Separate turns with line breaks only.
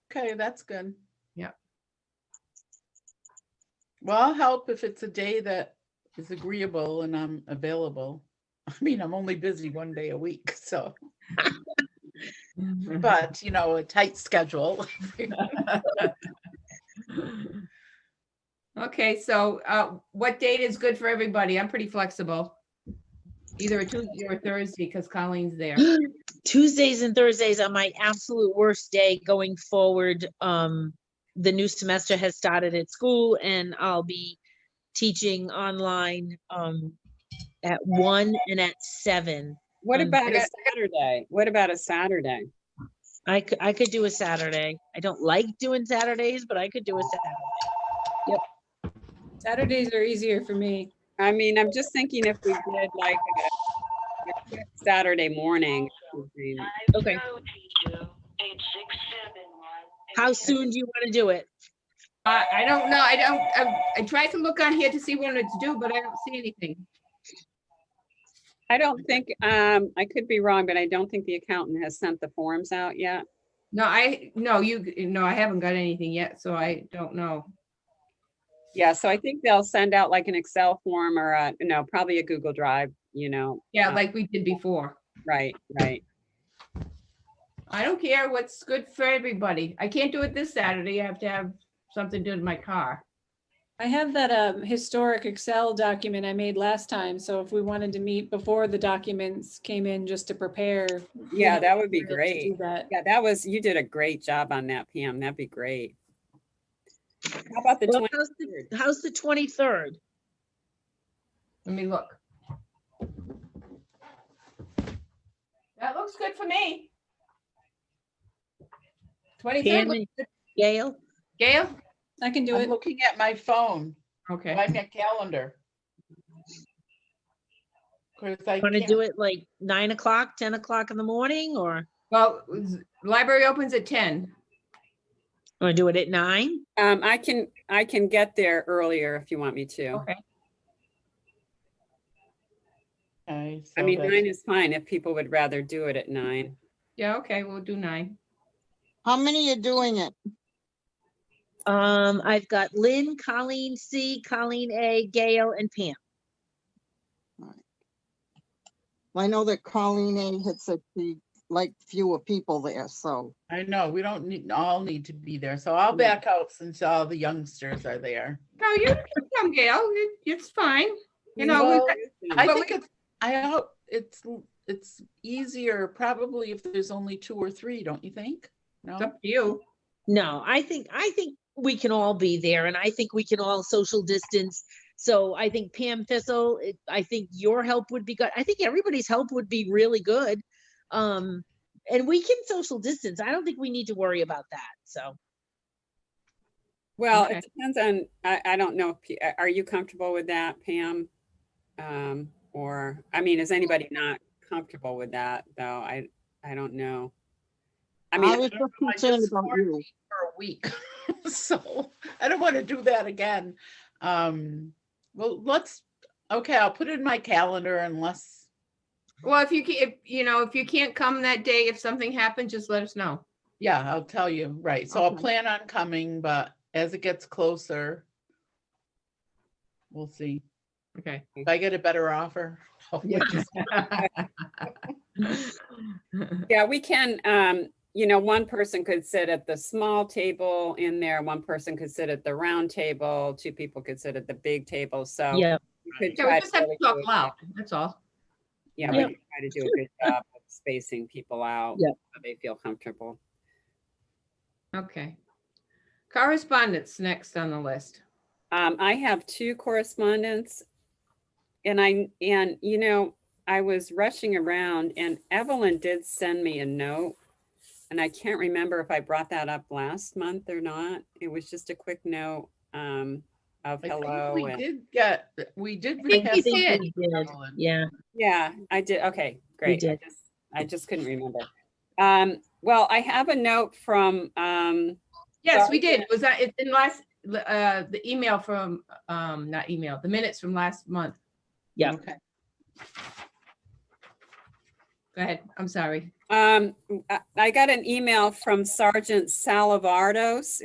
Okay, that's good.
Yep.
Well, I'll help if it's a day that is agreeable and I'm available. I mean, I'm only busy one day a week, so,
Mm-hmm.
but you know, a tight schedule.
Okay, so uh, what date is good for everybody? I'm pretty flexible. Either a Tuesday or a Thursday because Colleen's there.
Tuesdays and Thursdays are my absolute worst day going forward. Um, the new semester has started at school and I'll be teaching online, um, at one and at seven.
What
Um,
about a
got-
Saturday? What about a Saturday?
I could, I could do a Saturday. I don't like doing Saturdays, but I could do a Saturday.
Saturdays are easier for me.
I mean, I'm just thinking if we did like a- a Saturday morning. or something.
Okay. How soon do you want to do it?
I, I don't know, I don't, I- I tried to look on here to see when it's due, but I don't see anything.
I don't think, um, I could be wrong, but I don't think the accountant has sent the forms out yet.
No, I, no, you, no, I haven't got anything yet, so I don't know.
Yeah, so I think they'll send out like an Excel form or a, no, probably a Google Drive, you know,
Yeah,
Uh,
like we did before.
right, right.
I don't care what's good for everybody. I can't do it this Saturday. I have to have something to do with my car.
I have that um, historic Excel document I made last time, so if we wanted to meet before the documents came in just to prepare. you
Yeah,
know,
that would be
we'll have to
great.
do that.
Yeah, that was, you did a great job on that, Pam. That'd be great. How about the
Well,
twenty?
how's the, how's the twenty-third?
Let me look. That looks good for me. Twenty-third,
Pam and Gail?
Gail?
I can do
I'm
it.
looking at my phone,
Okay,
my my calendar. Cause I
Want to
can't-
do it like nine o'clock, ten o'clock in the morning, or
well, z- library opens at ten.
want to do it at nine?
Um, I can, I can get there earlier if you want me to.
Okay.
Okay,
I
so
mean,
that's-
nine is fine if people would rather do it at nine.
Yeah, okay, we'll do nine.
How many are doing it?
Um, I've got Lynn, Colleen C, Colleen A, Gail, and Pam.
I know that Colleen A had said she like fewer people there, so.
I know, we don't need, all need to be there, so I'll back out since all the youngsters are there.
No, you can come, Gail. It- It's fine. You know,
Well,
we've got-
I
But
think it's, I hope it's, l- it's easier probably if there's only two or three, don't you think? No,
it's up to you.
No, I think, I think we can all be there and I think we can all social distance. So I think Pam Thistle, it- I think your help would be good. I think everybody's help would be really good. Um, and we can social distance. I don't think we need to worry about that. So
Well,
Okay.
it depends on, I, I don't know, if P- are you comfortable with that, Pam? Um, or, I mean, is anybody not comfortable with that, though? I, I don't know. I
I
mean,
was just
I
concerned
just
about
learned-
you.
for a week, so I don't want to do that again. Um, well, let's, okay, I'll put it in my calendar unless,
Well, if you can, if, you know, if you can't come that day, if something happens, just let us know.
yeah, I'll tell you, right, so I'll
Okay.
plan on coming, but as it gets closer, we'll see.
Okay.
If I get a better offer. I'll
Yeah.
just-
yeah, we can, um, you know, one person could sit at the small table in there, one person could sit at the round table, two people could sit at the big table, so.
yeah,
we could
Yeah, we
try to
just have to
really
talk
do a-
loud, that's all.
Yeah, we
Yeah.
could try to do a good job of spacing people out.
Yeah.
so They feel comfortable.
Okay. Correspondence next on the list.
Um, I have two correspondents. And I, and you know, I was rushing around and Evelyn did send me a note. And I can't remember if I brought that up last month or not. It was just a quick note, um, of
I think
hello.
We
and-
did get, we did.
I think
I
we
have
think
did.
we did.
Evelyn.
Yeah,
Yeah, I did. Okay, great. I
did.
just- I just couldn't remember. Um, well, I have a note from, um,
Yes, we did. It Was that, it's in last, uh, the email from, um, not email, the minutes from last month.
Yeah.
Okay.
Go ahead. I'm sorry.
Um, I- I got an email from Sergeant Salavardos